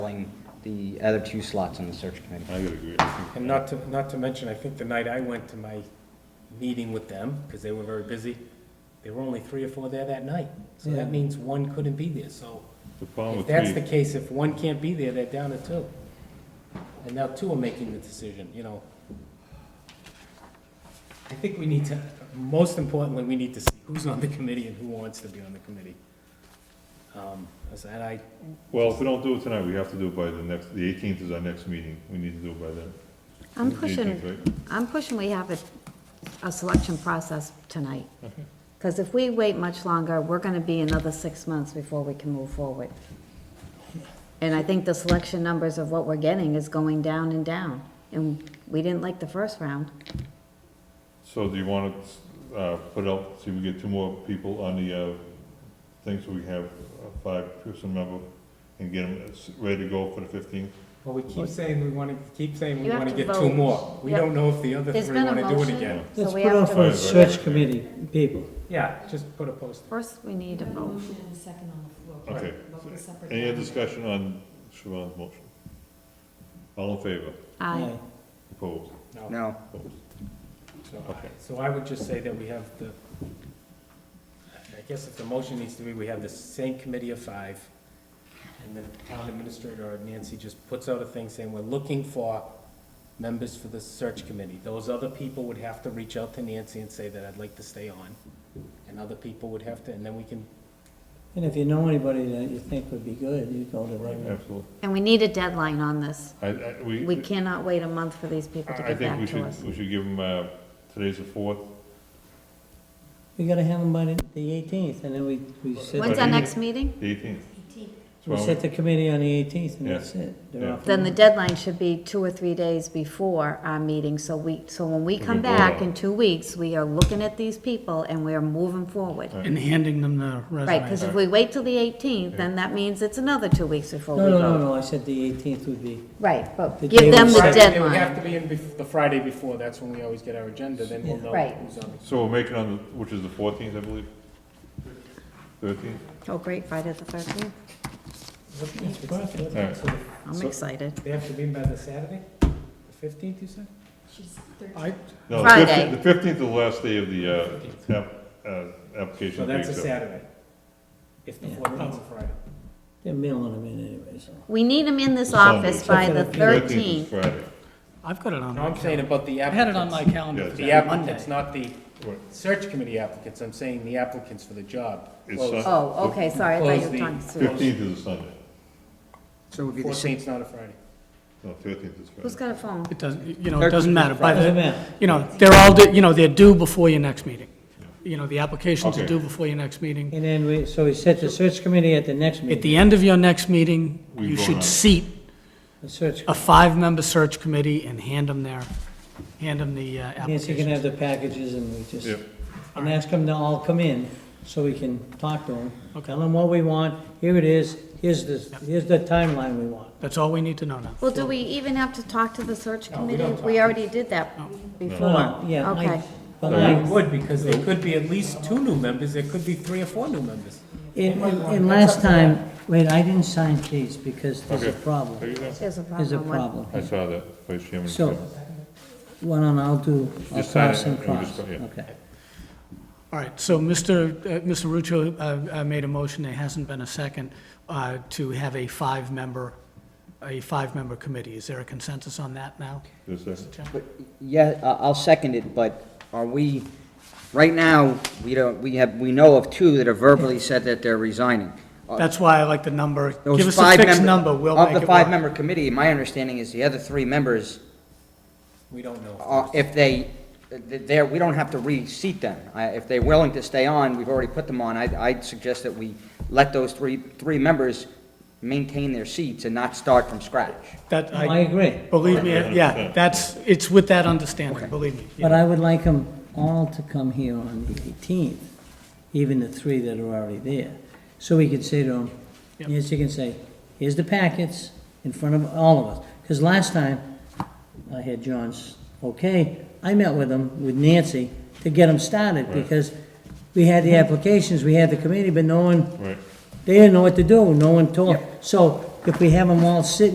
filling the other two slots on the search committee. I would agree. I think- And not to, not to mention, I think the night I went to my meeting with them, because they were very busy, there were only three or four there that night. So Yeah. that means one couldn't be there, so The problem if with that's the me, case, if one can't be there, they're down to two. And now two are making the decision, you know. I think we need to, most importantly, we need to see who's on the committee and who wants to be on the committee. Um, as that I, well, if we don't do it tonight, we have to do it by the next, the eighteenth is our next meeting. We need to do it by then. I'm The pushing, 18th, right? I'm pushing we have a, a selection process tonight. Because if we wait much longer, we're gonna be another six months before we can move forward. And I think the selection numbers of what we're getting is going down and down. And we didn't like the first round. So do you want to, uh, put out, see if we get two more people on the, uh, thing, so we have uh, a five-person member and get them ready to go for the fifteenth? well, we keep saying we want to, keep saying we You have want to to get two vote. more. We Yep. don't know if the other There's three been want a to do it motion. again. so Let's we put have off to Right, our right, search right. committee people. Yeah, just put a post. First, we need a We have a vote. motion and a second on the floor. Okay. Vote for separate Any other vote. discussion on Siobhan's motion? All in favor? Aye. Opposed? No, Opposed? So Okay. so I would just say that we have the, I guess if the motion needs to be, we have the same committee of five, and the town administrator or Nancy just puts out a thing saying, we're looking for members for the search committee. Those other people would have to reach out to Nancy and say that I'd like to stay on, and other people would have to, and then we can, And if you know anybody that you think would be good, you go to them. Absolutely. And we need a deadline on this. I, I, we. We cannot wait a month for these people to I get think we back to should, us. we should give them, uh, today's the fourth. We gotta have them by the the eighteenth, and then we, we When's set, I- our next meeting? The eighteenth. Eighteenth. we set the committee on the eighteenth, and Yeah. that's it. They're Yeah. off. Then the deadline should be two or three days before our meeting, so we, so when we can come vote on back it. in two weeks, we are looking at these people and we are moving forward. And handing them the Right, resume. because if we wait till the eighteenth, then that means it's another two weeks before No, we no, no, vote. no, I said the eighteenth would be, Right, but The give day them we the set. Friday, it would have deadline. to be in bef- the Friday before, that's when we always get our agenda, then we'll know Right. who's on. So we'll make it on, the which is the fourteenth, I believe? Thirteenth? Oh, great, Friday the thirteenth. Alright. the. I'm So- excited. They have to be in by the Saturday, the fifteenth, you said? She's thirteen. I, No, the Friday. 15th The fifteenth is the last day of the, uh, app, uh, So application. that's a date, so- Saturday. If the Yeah. fourteenth is a Friday. they're mailing them in anyway, so. We need them in this Sunday. office by the is thirteenth. Friday. I've got it on No, my I'm saying calendar. about the I had it on my applicants. calendar Yeah, for The that Monday. applicants, not the Right. search committee applicants. I'm saying the applicants for the job. It's Sun- Close. Oh, okay, sorry, I Close thought the- you were talking to. Fifteenth is a Sunday. so it would be the same. Fourteenth's not a Friday. No, thirteenth is Who's Friday. got a phone? It doesn't, you know, it doesn't matter. By Doesn't the, matter. you know, they're all, di- you know, they're due before your next meeting. You know, the applications Okay. are due before your next meeting. And then we, so we set the search committee at the next At meeting, the end of your next meeting, We you vote on it. should seat the search, a five-member search committee and hand them their, hand them the uh, Nancy can application. have the packages and we just, Yeah. and ask them to all come in, so we can talk to them. Tell them what we want, here it is, here's the, here's the timeline we want. That's all we need to know now. Well, do we even have to talk to the search No, we committee? don't talk. We already did that No, before. no, yeah, I- Okay. but Well, I- it would, because there could be at least two new members. There could be three or four new members. And, and- and last time, wait, I didn't sign these because there's a Okay. There problem. you go. There's a There's a problem. with- problem. I saw that, Vice Chairman. So, why don't I'll do, I'll Just sign it cross and and we'll just cross, go, yeah. okay. All right, so Mr. uh, Mr. Ruccio uh, uh, made a motion, there hasn't been a second, uh, to have a five-member, a five-member committee. Is there a consensus on that now? Just a second. Chairman? But, yeah, I- I'll second it, but are we, right now, we don't, we have, we know of two that have verbally said that they're resigning. That's why I like the number, Those give us a five fixed member- number, we'll Of make the it work. five-member committee, my understanding is the other three members, We don't uh, know. if they, they're, we don't have to reseat them. I- If they're willing to stay on, we've already put them on, I'd, I'd suggest that we let those three, three members maintain their seats and not start from scratch. That, I I, agree, believe me, yeah, 100%. that's, it's with that understanding, believe me. but I would like them all to come here on the eighteenth, even the three that are already there. So we could say to them, Yep. yes, you can say, here's the packets in front of all of us. Because last time, I had John's, okay, I met with him, with Nancy, to get them started, because we had the applications, we had the committee, but no one Right. They didn't know what to do, no one told. So if we have them all sit